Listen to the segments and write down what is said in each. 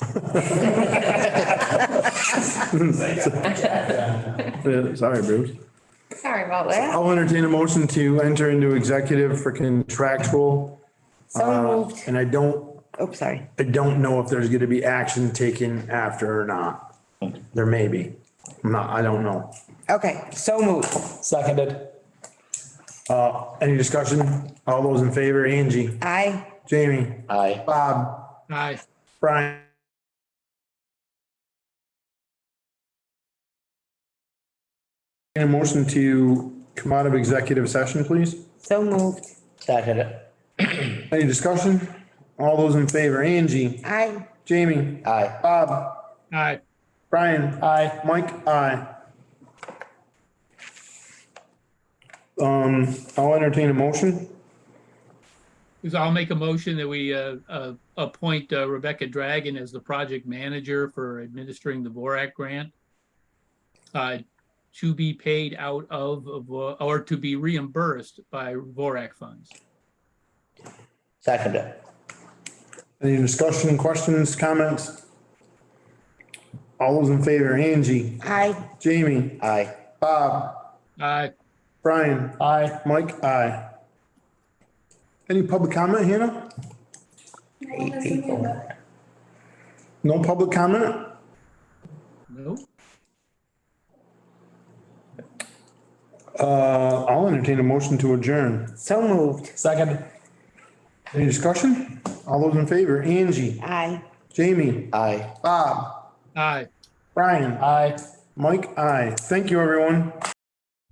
Yeah, Sorry, Bruce. Sorry about that. I'll entertain a motion to enter into executive for contractual. So uh, moved. And I don't, Oh, sorry. I don't know if there's gonna be action taken after or not. There may be. I'm not, I don't know. Okay, so moved. Seconded. Uh, any discussion? All those in favor, Angie, Aye. Jamie, Aye. Bob, Aye. Brian. And a motion to come out of executive session, please. So moved. Seconded. Any discussion? All those in favor, Angie, Aye. Jamie, Aye. Bob, Aye. Brian. Aye. Mike, aye. Um, I'll entertain a motion. Because I'll make a motion that we uh, uh, appoint uh, Rebecca Dragon as the project manager for administering the Borac grant. uh, To be paid out of, of, uh, or to be reimbursed by Borac funds. Seconded. Any discussion, questions, comments? All those in favor, Angie, Aye. Jamie, Aye. Aye. Brian, Aye. Mike, aye. Any public comment, Hannah? No public comment? No? Uh, I'll entertain a motion to adjourn. So moved. Seconded. Any discussion? All those in favor, Angie, Aye. Jamie, Aye. Aye. Brian, Aye. Mike, aye. Thank you, everyone.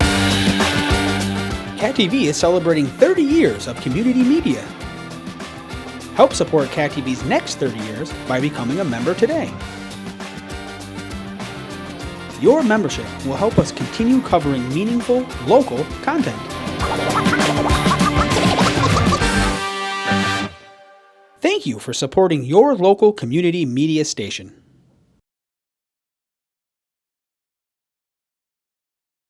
Cat TV is celebrating 30 years of community media. Help support Cat TV's next 30 years by becoming a member today. Your membership will help us continue covering meaningful, local content. Thank you for supporting your local community media station.